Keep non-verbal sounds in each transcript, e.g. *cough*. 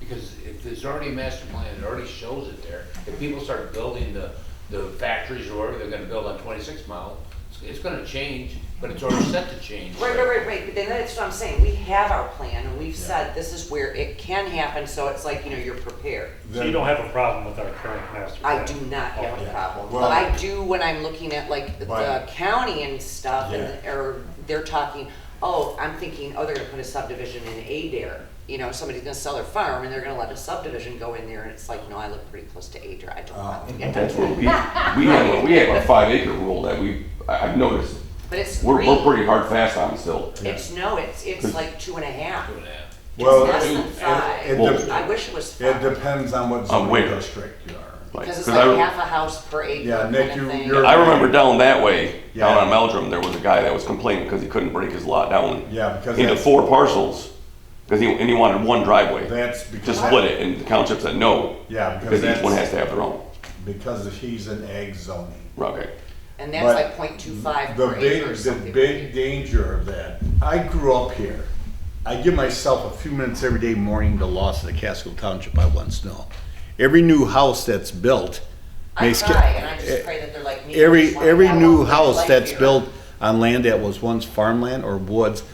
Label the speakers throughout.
Speaker 1: Because if there's already a master plan, it already shows it there. If people start building the, the factories or whatever they're gonna build on twenty-six mile, it's, it's gonna change, but it's already set to change.
Speaker 2: Right, right, right, right, but then that's what I'm saying, we have our plan, and we've said this is where it can happen, so it's like, you know, you're prepared.
Speaker 3: So you don't have a problem with our current master plan?
Speaker 2: I do not have a
Speaker 3: Okay.
Speaker 2: problem,
Speaker 4: Well-
Speaker 2: but I do when I'm looking at like the- the
Speaker 4: Right.
Speaker 2: county and stuff, and, or they're talking, oh, I'm thinking, oh, they're gonna put a subdivision in Adair. You know, somebody's gonna sell their farm and they're gonna let a subdivision go in there, and it's like, no, I live pretty close to Adair, I don't want to
Speaker 4: Oh.
Speaker 2: get that.
Speaker 5: That's where we, we have, a- we have a five acre rule that we, I- I've noticed,
Speaker 2: But it's
Speaker 5: we're, we're
Speaker 2: three,
Speaker 5: pretty hard fast on still.
Speaker 2: it's, no, it's, it's like two and a half,
Speaker 1: Doing that.
Speaker 4: Well,
Speaker 2: less
Speaker 4: it-
Speaker 2: than five.
Speaker 4: it- it dep-
Speaker 2: I wish it was
Speaker 4: It
Speaker 2: five,
Speaker 4: depends on what
Speaker 5: On
Speaker 4: zoning
Speaker 5: where?
Speaker 4: district you are.
Speaker 5: Like,
Speaker 2: because it's
Speaker 5: 'cause I
Speaker 2: like
Speaker 5: re-
Speaker 2: half a house per acre
Speaker 4: Yeah,
Speaker 2: kind
Speaker 4: Nick,
Speaker 2: of
Speaker 4: you-
Speaker 2: thing.
Speaker 4: you're-
Speaker 5: I remember down that way, down
Speaker 4: Yeah.
Speaker 5: on Meldrum, there was a guy that was complaining because he couldn't break his lot down
Speaker 4: Yeah, because
Speaker 5: into
Speaker 4: that's,
Speaker 5: four parcels, because he, and he wanted one driveway,
Speaker 4: that's because.
Speaker 5: just
Speaker 4: that-
Speaker 5: split it, and the township said no,
Speaker 4: Yeah, because
Speaker 5: because each one
Speaker 4: that's,
Speaker 5: has to have their own.
Speaker 4: because he's in ag zoning.
Speaker 5: Okay,
Speaker 2: And that's
Speaker 4: But
Speaker 2: like point two five
Speaker 4: The
Speaker 2: per
Speaker 4: big,
Speaker 2: acre or
Speaker 4: the
Speaker 2: something.
Speaker 4: big danger of that, I grew up here. I give myself a few minutes every day morning to Lawson, to Casco Township, I once know. Every new house that's built.
Speaker 2: I
Speaker 4: makes ca-
Speaker 2: try, and I just pray that they're like me. I
Speaker 4: Every,
Speaker 2: just wanna
Speaker 4: every
Speaker 2: have
Speaker 4: new
Speaker 2: one
Speaker 4: house
Speaker 2: life
Speaker 4: that's
Speaker 2: here.
Speaker 4: built on land that was once farmland or woods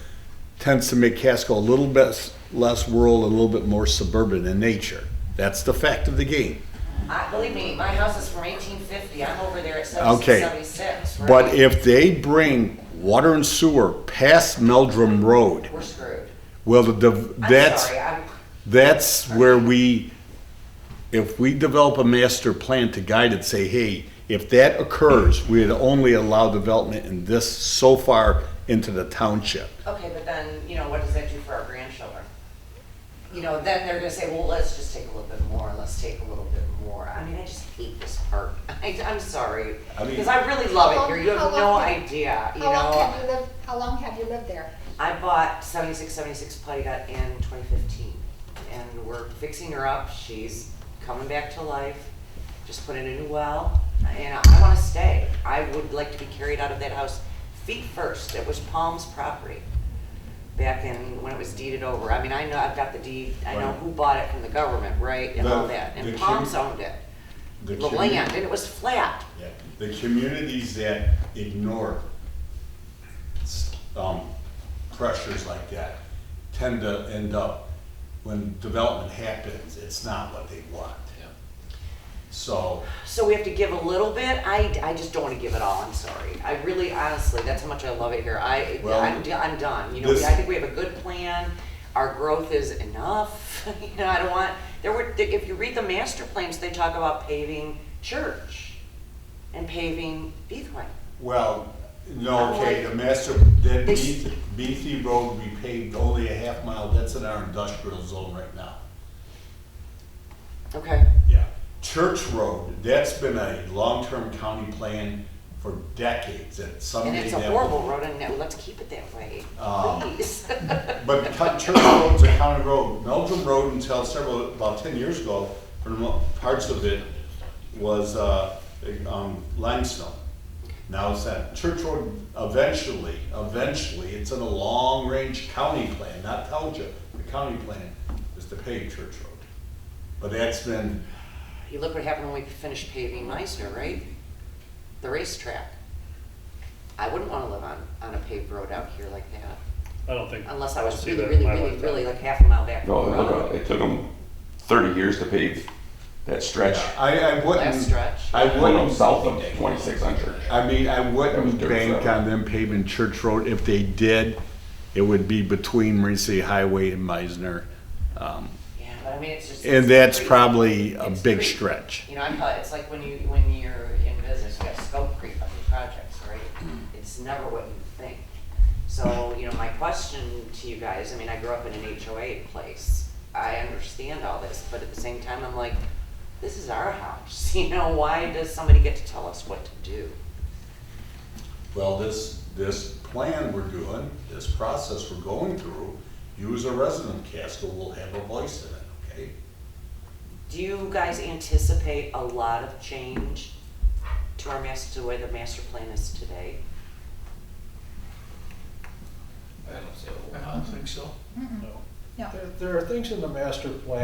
Speaker 4: tends to make Casco a little bit s- less rural, a little bit more suburban in nature. That's the fact of the game.
Speaker 2: I, believe me, my house is from eighteen fifty, I'm over there at
Speaker 4: Okay.
Speaker 2: seventeen seventy-six, right?
Speaker 4: But if they bring water and sewer past Meldrum Road,
Speaker 2: We're screwed.
Speaker 4: well, the, dev-
Speaker 2: I'm
Speaker 4: that's.
Speaker 2: sorry, I'm-
Speaker 4: That's where we, if we develop a master plan to guide it, say, hey, if that occurs, we'd only allow development in this so far into the township.
Speaker 2: Okay, but then, you know, what does that do for our grandchildren? You know, then they're gonna say, well, let's just take a little bit more, let's take a little bit more. I mean, I just hate this part. *laughs* I, I'm sorry,
Speaker 4: I mean-
Speaker 2: because I really love it
Speaker 6: How-
Speaker 2: here, you
Speaker 6: how
Speaker 2: have no
Speaker 6: long-
Speaker 2: idea, you
Speaker 6: How long
Speaker 2: know?
Speaker 6: have you lived, how long have you lived there?
Speaker 2: I bought 76, 76 Putty Gut in 2015, and we're fixing her up. She's coming back to life. Just put in a new well, and I want to stay. I would like to be carried out of that house feet first. It was Palm's property back in when it was deeded over. I mean, I know I've got the deed. I know
Speaker 4: Right.
Speaker 2: who bought it from the government, right, and all
Speaker 4: The-
Speaker 2: that.
Speaker 4: the
Speaker 2: And
Speaker 4: commu-
Speaker 2: Palm's owned it,
Speaker 4: The
Speaker 2: the
Speaker 4: commu-
Speaker 2: land, and it was flat.
Speaker 4: Yeah, The communities that ignore s- um, pressures like that tend to end up, when development happens, it's not what they want.
Speaker 1: Yeah.
Speaker 4: So,
Speaker 2: So we have to give a little bit. I, I just don't want to give it all. I'm sorry. I really, honestly, that's how much I love it here. I,
Speaker 4: Well,
Speaker 2: I'm, do- I'm done. You know,
Speaker 4: this-
Speaker 2: I think we have a good plan. Our growth is enough. *laughs* you know, I don't want, there were, if you read the master plans, they talk about paving church and paving Beethway.
Speaker 4: Well, no, okay, the master, then Beatty, Beatty Road, we paved only a half mile, that's in our industrial zone right now.
Speaker 2: Okay.
Speaker 4: Yeah. Church Road, that's been a long-term county plan for decades, that
Speaker 2: And
Speaker 4: someday
Speaker 2: it's a
Speaker 4: that
Speaker 2: horrible
Speaker 4: will.
Speaker 2: road and that- let's keep it that way,
Speaker 4: Um,
Speaker 2: please. *laughs*
Speaker 4: But Cut- Church Road's a county road, Meldrum Road until several, about ten years ago, for mo- parts of it was, uh, um, limestone. Now it's that Church Road, eventually, eventually, it's in a long-range county plan, not township, the county plan is to pave Church Road. But that's been,
Speaker 2: You look what happened when we finished paving Meisner, right? The racetrack. I wouldn't wanna live on, on a paved road out here like that,
Speaker 3: I don't think.
Speaker 2: unless I
Speaker 3: I'll
Speaker 2: was
Speaker 3: see
Speaker 2: really,
Speaker 3: that in
Speaker 2: really,
Speaker 3: my
Speaker 2: really,
Speaker 3: lifetime.
Speaker 2: really like half a mile back from
Speaker 5: no,
Speaker 2: the
Speaker 5: look, uh,
Speaker 2: road.
Speaker 5: it took them thirty years to pave that stretch,
Speaker 4: I, I
Speaker 2: Last
Speaker 4: wouldn't,
Speaker 2: stretch.
Speaker 4: I
Speaker 5: went up
Speaker 4: wouldn't,
Speaker 5: south of twenty-six on Church.
Speaker 4: I mean, I
Speaker 5: That was
Speaker 4: wouldn't
Speaker 5: dirt
Speaker 4: bank
Speaker 5: road.
Speaker 4: on them paving Church Road, if they did, it would be between Marine City Highway and Meisner. Um,
Speaker 2: Yeah, but I mean, it's just.
Speaker 4: And
Speaker 2: it's
Speaker 4: that's
Speaker 2: creep.
Speaker 4: probably a
Speaker 2: It's
Speaker 4: big
Speaker 2: creep.
Speaker 4: stretch.
Speaker 2: You know, I'm, probably- it's like when you, when you're in business, you have scope creep on your projects, right? It's never what you think. So, you know, my question to you guys, I mean, I grew up in an HOA place. I understand all this, but at the same time, I'm like, this is our house, *laughs* you know, why does somebody get to tell us what to do?
Speaker 4: Well, this, this plan we're doing, this process we're going through, you as a resident of Casco will have a voice in it, okay?
Speaker 2: Do you guys anticipate a lot of change to our master, to where the master plan is today?
Speaker 1: I don't see a whole
Speaker 7: I
Speaker 1: lot.
Speaker 7: don't think so.
Speaker 3: No.
Speaker 6: No.
Speaker 7: There- There are things in the master plan